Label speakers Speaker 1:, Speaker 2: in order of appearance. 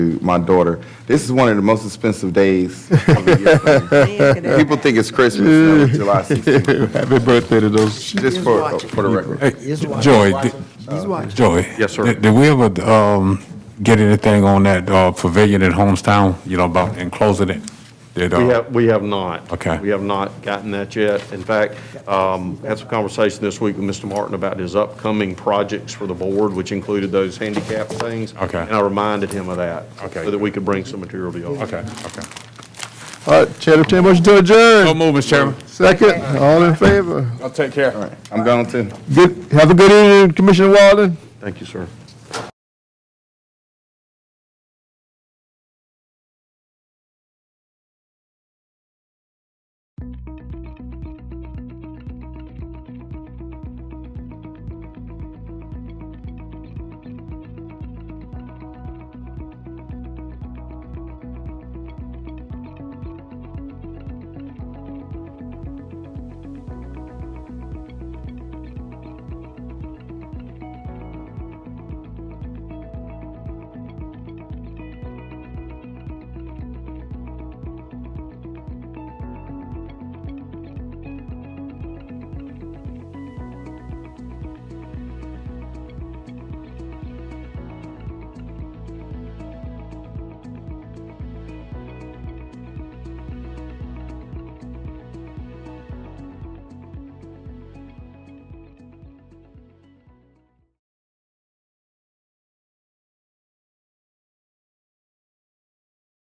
Speaker 1: to my daughter. This is one of the most expensive days of the year. for me. People think it's Christmas, no, it's July 16th,
Speaker 2: Happy birthday to those.
Speaker 1: just for, for the record.
Speaker 2: Hey, Joy, di- Joy.
Speaker 3: Yes, sir.
Speaker 2: di- Did we ever um, get anything on that uh, pavilion at Homestown, you know, about enclosing it? Did, uh,
Speaker 3: We have, we have not.
Speaker 2: Okay.
Speaker 3: We have not gotten that yet. In fact, um, had some conversation this week with Mr. Martin about his upcoming projects for the board, which included those handicap things.
Speaker 2: Okay.
Speaker 3: And I reminded him of that.
Speaker 2: Okay.
Speaker 3: So that we could bring some material to y'all.
Speaker 2: Okay, okay.
Speaker 4: All right, Chair, entertain a motion to
Speaker 2: No
Speaker 4: adjourn.
Speaker 2: move, Mr. Chairman.
Speaker 4: Second, all in favor?
Speaker 2: I'll take care.
Speaker 1: I'm going to.
Speaker 4: Good, have a good evening, Commissioner Walden.
Speaker 3: Thank you, sir.